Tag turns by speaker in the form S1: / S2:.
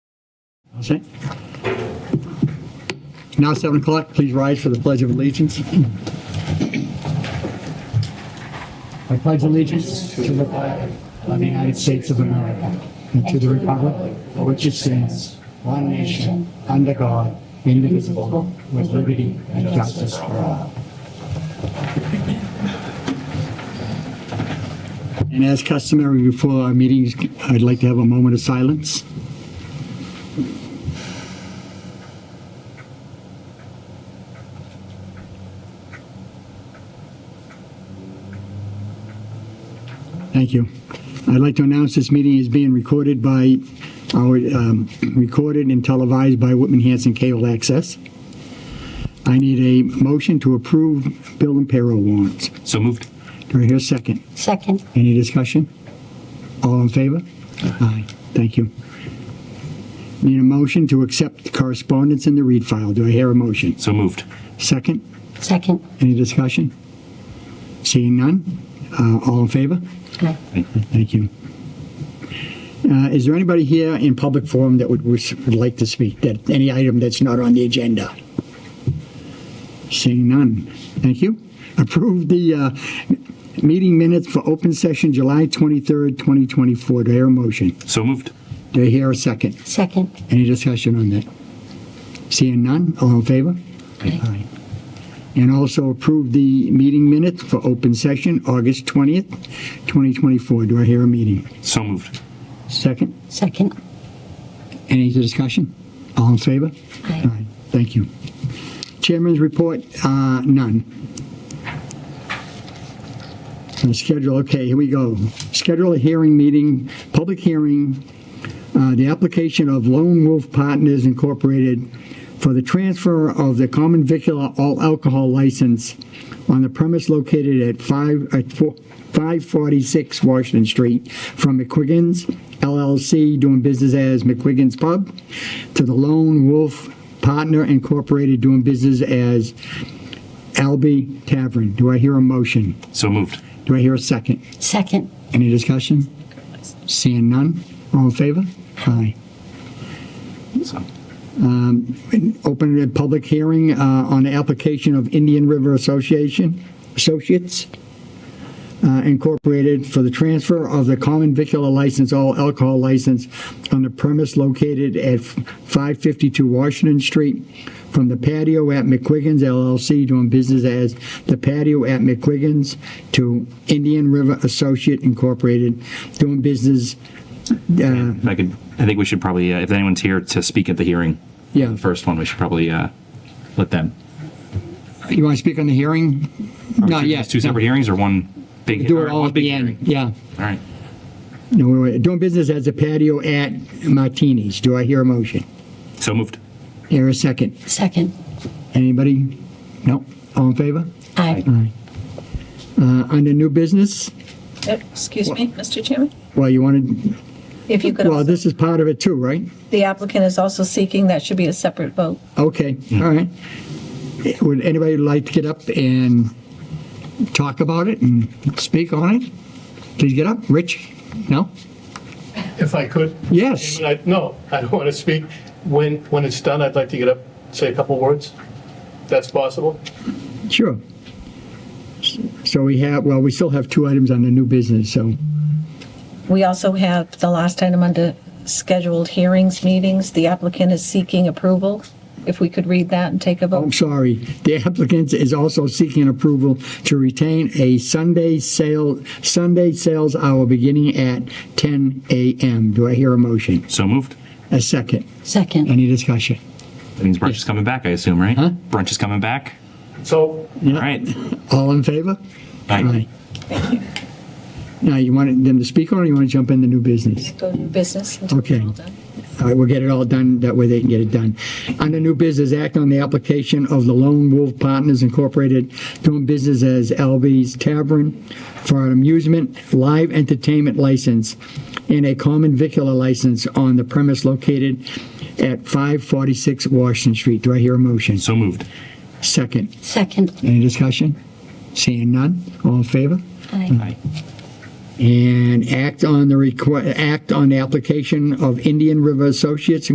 S1: Okay. Now 7 o'clock, please rise for the Pledge of Allegiance. I pledge allegiance to the flag of the United States of America and to the republic for which it stands, one nation, under God, indivisible, with liberty and justice for all. And as customary before our meetings, I'd like to have a moment of silence. Thank you. I'd like to announce this meeting is being recorded by, our um, recorded and televised by Whitman Hanson Cable Access. I need a motion to approve bill and payroll warrants.
S2: So moved.
S1: Do I hear a second?
S3: Second.
S1: Any discussion? All in favor? Aye. Thank you. Need a motion to accept correspondence in the read file. Do I hear a motion?
S2: So moved.
S1: Second?
S3: Second.
S1: Any discussion? Seeing none? Uh, All in favor?
S3: Aye.
S1: Thank you. Uh, Is there anybody here in public forum that would would like to speak, that, any item that's not on the agenda? Seeing none. Thank you. Approve the uh, meeting minutes for open session July 23rd, 2024. Do I hear a motion?
S2: So moved.
S1: Do I hear a second?
S3: Second.
S1: Any discussion on that? Seeing none, all in favor?
S3: Aye.
S1: And also approve the meeting minutes for open session, August 20th, 2024. Do I hear a meeting?
S2: So moved.
S1: Second,
S3: Second.
S1: any discussion? All in favor?
S3: Aye.
S1: All right, Thank you. Chairman's report, uh, none. And Schedule, okay, here we go. Schedule a hearing meeting, public hearing, uh, the application of Lone Wolf Partners Incorporated for the transfer of the common vicular all alcohol license on the premise located at 5, at 4 546 Washington Street from McQuiggin's LLC, doing business as McQuiggin's Pub, to the Lone Wolf Partner Incorporated, doing business as Albee Tavern. Do I hear a motion?
S2: So moved.
S1: Do I hear a second?
S3: Second.
S1: Any discussion? Seeing none? All in favor? Aye.
S2: So,
S1: Open a public hearing uh, on the application of Indian River Association, Associates uh, Incorporated for the transfer of the common vicular license, all alcohol license on the premise located at 552 Washington Street from the patio at McQuiggin's LLC, doing business as the patio at McQuiggin's, to Indian River Associate Incorporated, doing business, uh,
S2: if I could, I think we should probably, uh, if anyone's here to speak at the hearing,
S1: yeah.
S2: the first one, we should probably uh, let them.
S1: You want to speak on the hearing? Not yet.
S2: Two separate hearings or one big?
S1: Do
S2: or
S1: it all
S2: one
S1: at
S2: big
S1: the end,
S2: hearing?
S1: yeah.
S2: All right.
S1: No, wait, wait. Doing business as a patio at Martini's. Do I hear a motion?
S2: So moved.
S1: Hear a second?
S3: Second.
S1: Anybody? No? All in favor?
S3: Aye.
S1: Uh, Under new business,
S4: Oh, Excuse me, Mr. Chairman?
S1: well, you wanted,
S4: If you could,
S1: well,
S4: also-
S1: this is part of it too, right?
S4: the applicant is also seeking, that should be a separate vote.
S1: Okay, all right. Would anybody like to get up and talk about it and speak on it? Please get up. Rich? No?
S5: If I could?
S1: Yes.
S5: I- No, I don't want to speak. When, when it's done, I'd like to get up, say a couple words. If That's possible?
S1: Sure. So we have, well, we still have two items on the new business, so,
S4: We also have the last item under scheduled hearings meetings. The applicant is seeking approval. If we could read that and take a
S1: I'm
S4: vote.
S1: sorry. The applicant is also seeking approval to retain a Sunday sale, Sunday sales hour beginning at 10 a.m. Do I hear a motion?
S2: So moved.
S1: A second.
S3: Second.
S1: Any discussion?
S2: That means brunch is coming back, I assume, right?
S1: Huh?
S2: Brunch is coming back.
S5: So
S2: All right.
S1: All in favor?
S2: Aye.
S1: Now, you want them to speak on it, or you want to jump into new business?
S4: Go to business. until it's
S1: Oh. Okay.
S4: all done.
S1: All right, we'll get it all done, that way they can get it done. Under new business, act on the application of the Lone Wolf Partners Incorporated doing business as LB's Tavern for an amusement, live entertainment license and a common vicular license on the premise located at 546 Washington Street. Do I hear a motion?
S2: So moved.
S1: Second.
S3: Second.
S1: Any discussion? Seeing none? All in favor?
S3: Aye.
S2: Aye.
S1: And act on the requ act on the application of Indian River Associates